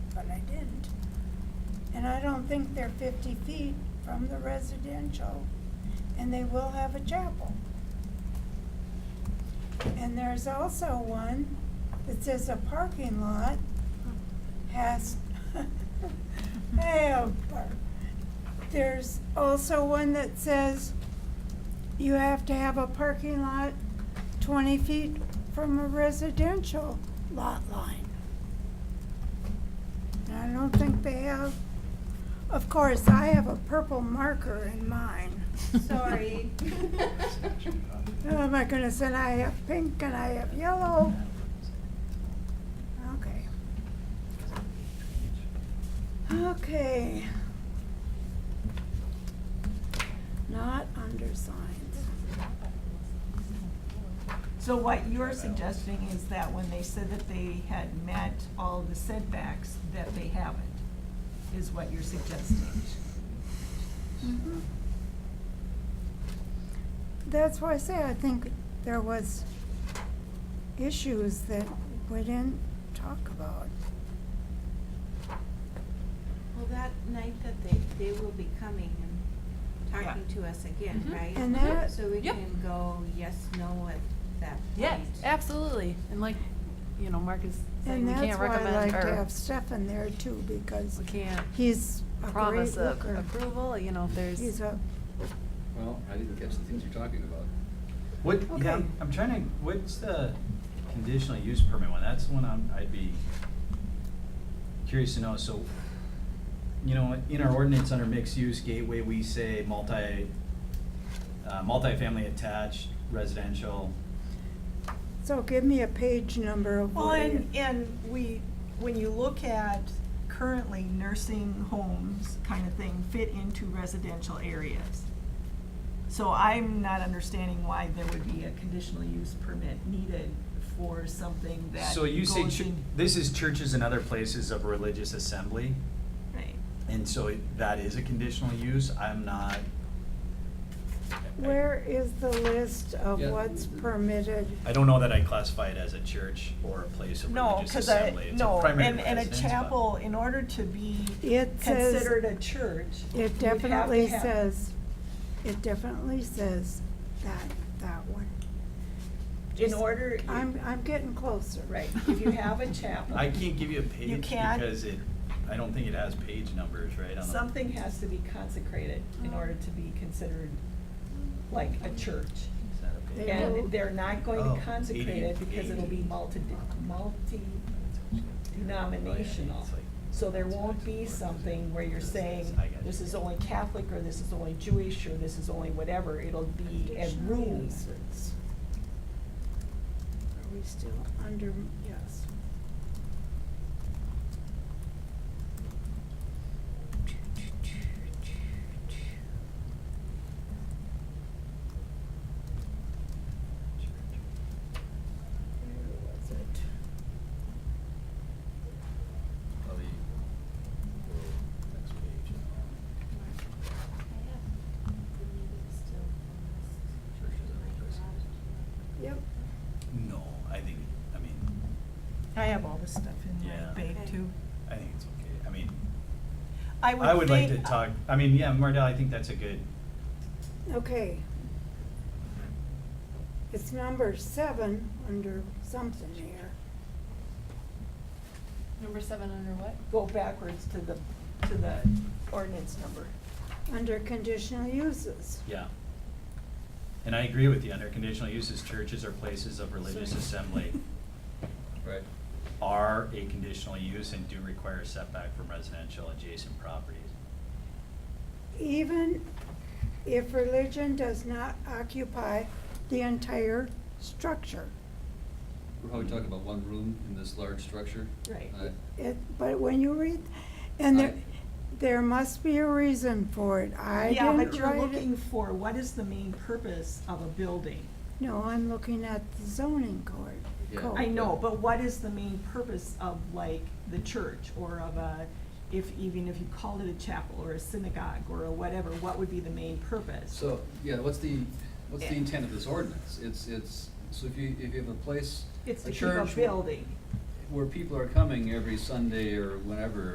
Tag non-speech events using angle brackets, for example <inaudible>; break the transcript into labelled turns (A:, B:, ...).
A: And I don't think they're fifty feet from the residential, and they will have a chapel. And there's also one that says a parking lot has, <laughs> hey, oh, bar- there's also one that says you have to have a parking lot twenty feet from a residential lot line. And I don't think they have, of course, I have a purple marker in mine.
B: Sorry. <laughs>
A: Oh my goodness, and I have pink and I have yellow. Okay. Okay. Not undersigned.
C: So what you're suggesting is that when they said that they had met all the setbacks, that they haven't, is what you're suggesting?
A: Mhm. That's why I say I think there was issues that we didn't talk about.
B: Well, that night that they, they will be coming and talking to us again,
D: Mhm.
B: right?
A: And that-
B: So we
D: Yep.
B: can go yes, no at that point.
D: Yes, absolutely. And like, you know, Mark is saying
A: And
D: we
A: that's
D: can't
A: why I like
D: recommend
A: to
D: or
A: have Stefan there too, because
D: we can't
A: he's a great
D: promise a-
A: looker.
D: approval, you know, if
A: He's
D: there's,
A: a,
E: Well, I didn't catch the things you're talking about.
F: What, yeah,
A: Okay.
F: I'm- I'm trying to, what's the conditional use permit one? That's the one I'm, I'd be curious to know. So, you know, in our ordinance under mixed use gateway, we say multi, uh, multifamily attached residential.
A: so give me a page number of
C: Well,
A: what it-
C: and, and we, when you look at currently nursing homes kind of thing fit into residential areas. So I'm not understanding why there would be a conditional use permit needed for something that
F: So you say,
C: goes
F: chu-
C: in-
F: this is churches and other places of religious assembly,
C: Right.
F: and so it- that is a conditional use? I'm not. I-
A: Where is the list of
E: Yeah.
A: what's permitted?
F: I don't know that I classify it as a church or a place of
C: No,
F: religious
C: because I,
F: assembly. It's a
C: no,
F: primary
C: and, and a
F: residence, but-
C: chapel, in order to be
A: It says-
C: considered a church, you'd have
A: It
C: to
A: definitely
C: have-
A: says, it definitely says that, that one.
C: In order.
A: I'm, I'm getting closer.
C: Right, if you have a chapel.
F: I can't give you a page
C: can't?
F: because it, I don't think it has page numbers, right? on the-
C: Something has to be consecrated in order to be considered like a church.
F: Is that a page?
A: Yeah.
C: And they're not going
F: Oh,
C: to consecrate it
F: eighty-
C: because it'll be
F: eighty.
C: multi, multi-denominational.
F: It's like-
C: So there won't be something where you're saying,
F: I got
C: this
F: you.
C: is only Catholic, or this is only Jewish, or this is only whatever, it'll be a
A: Additional
C: room.
A: uses. Are we still under, yes. Where was it?
F: Probably go next page. Churches and other places.
A: Yep,
F: No, I think, I mean,
C: I have all this stuff in
F: Yeah.
C: my bag too.
F: I think it's okay. I mean,
C: I
F: I would like to
C: think-
F: talk, I mean, yeah, Mardell, I think that's a good,
A: okay. It's number seven under something here.
D: number seven under what?
C: Go backwards to the, to the ordinance number.
A: under conditional uses.
F: Yeah. And I agree with you, under conditional uses, churches or places of religious assembly
E: Right.
F: are a conditional use and do require a setback from residential adjacent properties.
A: <laughs> Even if religion does not occupy the entire structure.
E: We're probably talking about one room in this large structure.
C: Right.
E: I-
A: It, but when you read, and there,
E: I-
A: there must be a reason for it. I didn't
C: Yeah, but you're
A: write it.
C: looking for, what is the main purpose of a building?
A: No, I'm looking at the zoning code.
E: Yeah.
A: code.
C: I know, but what is the main purpose of like the church or of a, if, even if you called it a chapel or a synagogue or a whatever, what would be the main purpose?
E: So, yeah, what's the, what's the
C: Yeah.
E: intent of this ordinance? It's, it's, so if you, if you have a place,
C: It's
E: a
C: to keep a
E: church
C: building.
E: where people are coming every Sunday or whenever,